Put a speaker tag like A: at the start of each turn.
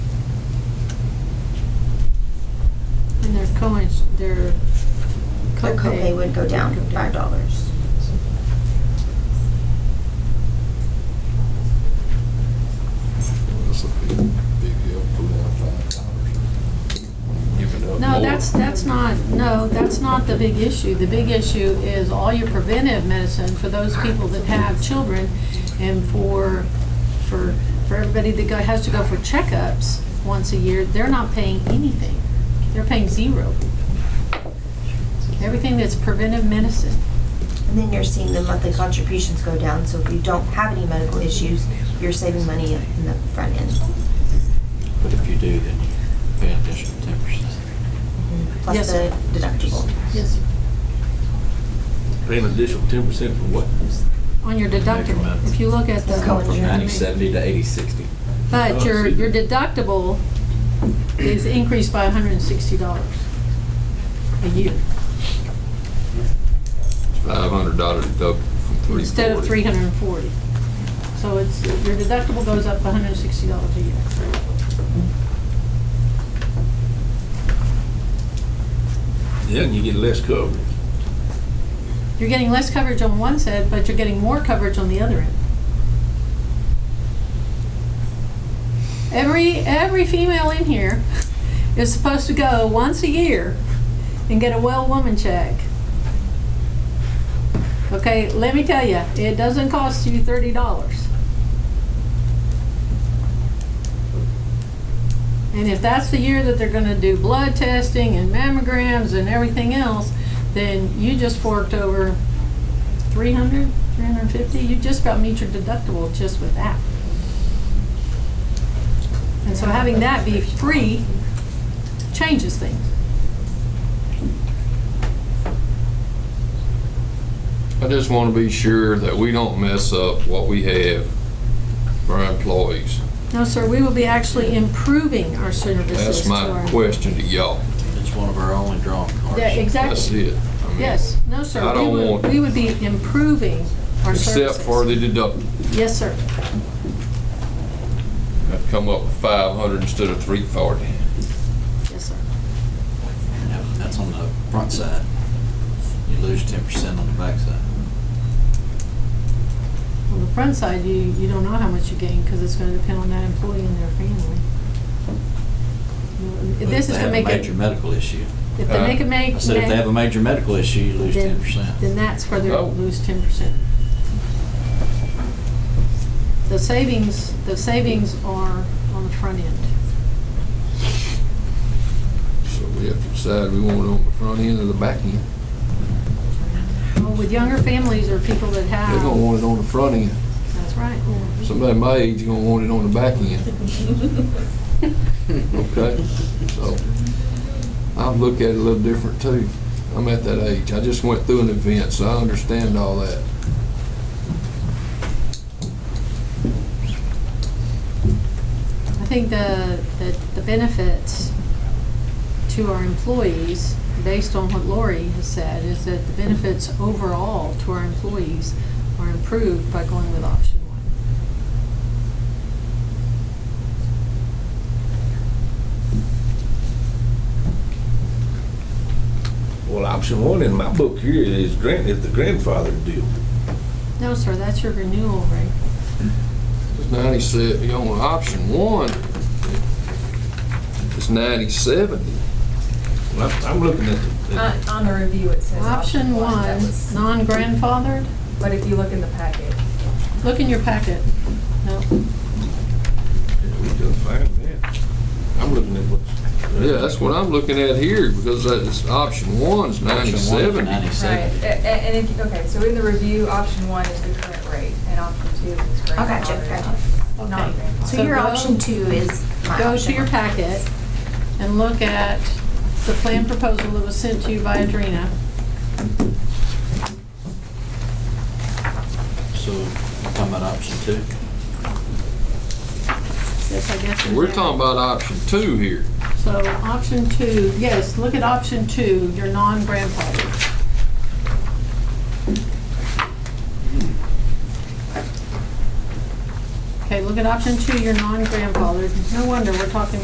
A: ins- their
B: Their copay would go down
A: Go
B: five dollars.
C: That's a big, big deal, pulling out five dollars. You can help
A: No,
C: more.
A: that's, that's not, no, that's not the big issue. The big issue is all your preventive medicine for those people that have children and for, for, for everybody that go, has to go for checkups once a year, they're not paying anything. They're paying zero. Everything that's preventive medicine.
B: And then you're seeing the monthly contributions go down, so if you don't have any medical issues, you're saving money in the front end.
D: But if you do, then you pay an additional ten percent.
A: Yes,
B: Plus
A: sir.
B: the deductible.
A: Yes.
E: Pay an additional ten percent for what?
A: On your deductible. If you look at the.
B: From
D: Ninety seventy to eighty sixty.
A: But
E: Oh,
A: your,
E: see.
A: your deductible is increased by hundred and sixty dollars a year,
C: Five hundred dollar deductible from three forty.
A: instead of three hundred and forty. So it's, your deductible goes up hundred and sixty dollars a year.
E: Yeah, and you get less coverage.
A: You're getting less coverage on one side, but you're getting more coverage on the other end. Every, every female in here is supposed to go once a year and get a well woman check. Okay, let me tell you, it doesn't cost you thirty dollars. And if that's the year that they're gonna do blood testing and mammograms and everything else, then you just forked over 300, 350, you just about meet your deductible just with that. And so having that be free changes things.
C: I just want to be sure that we don't mess up what we have for our employees.
A: No, sir, we will be actually improving our services
C: That's
A: to
C: my
A: our.
C: question to y'all.
D: It's one of our only drawing cards.
A: Yeah,
C: That's
A: exactly.
C: it. I mean,
A: Yes, no, sir.
C: I
A: we
C: don't
A: would-
C: want-
A: We would be improving our services.
C: Except for the deductible.
A: Yes, sir.
C: I've come up with five hundred instead of three forty.
A: Yes, sir.
D: No, That's on the front side. You lose ten percent on the back side.
A: On the front side, you, you don't know how much you gain, because it's gonna depend on that employee and their family. You know, This is gonna make
D: If they
A: it,
D: have a major medical issue.
A: if they make a make.
D: I said if they have a major medical issue, you lose
A: then-
D: ten percent.
A: Then that's where they'll
C: Oh.
A: lose ten percent. The savings, the savings are on the front end.
C: So we have to decide we want it on the front end or the back end.
A: Well, with younger families or people that
C: They're gonna
A: have,
C: want it on the front end.
A: that's right.
C: Somebody my age gonna want it on the back end. Okay, so I look at it a little different too. I'm at that age. I just went through an event, so I understand all that.
A: I think the, the- the benefits to our employees, based on what Lori has said, is that the benefits overall to our employees are improved by going with option one.
E: Well, option one in my book here is grant, is the grandfather deal.
A: No, sir, that's your renewal rate.
C: It's ninety-seven, you know, option one is ninety-seven.
E: Well, I'm- I'm looking at the,
F: Uh,
E: at
F: On the review, it says
A: Option
F: that
A: one,
F: was-
A: non-grandfathered,
F: But if you look in the packet,
A: look in your packet. No,
E: the- we done fine there. I'm looking at what's.
C: Yeah, that's what I'm looking at here, because that's, option one's ninety-seven.
F: right,
D: Ninety-seven.
F: A- a- and if, you- okay, so in the review, option one is the current rate, and option two is grandfathered.
B: Oh, gotcha, gotcha.
F: Not
A: Okay.
F: grandfathered.
B: So
A: So
B: your
A: go-
B: option two is my
A: go
B: option
A: to your
B: one.
A: packet and look at the plan proposal that was sent to you by Adrena.
D: So I'm talking about option two.
A: Yes, I guess.
C: We're talking about option two here.
A: So option two, yes, look at option two, your non-grandfathered. Okay, look at option two, your non-grandfathered. No wonder we're talking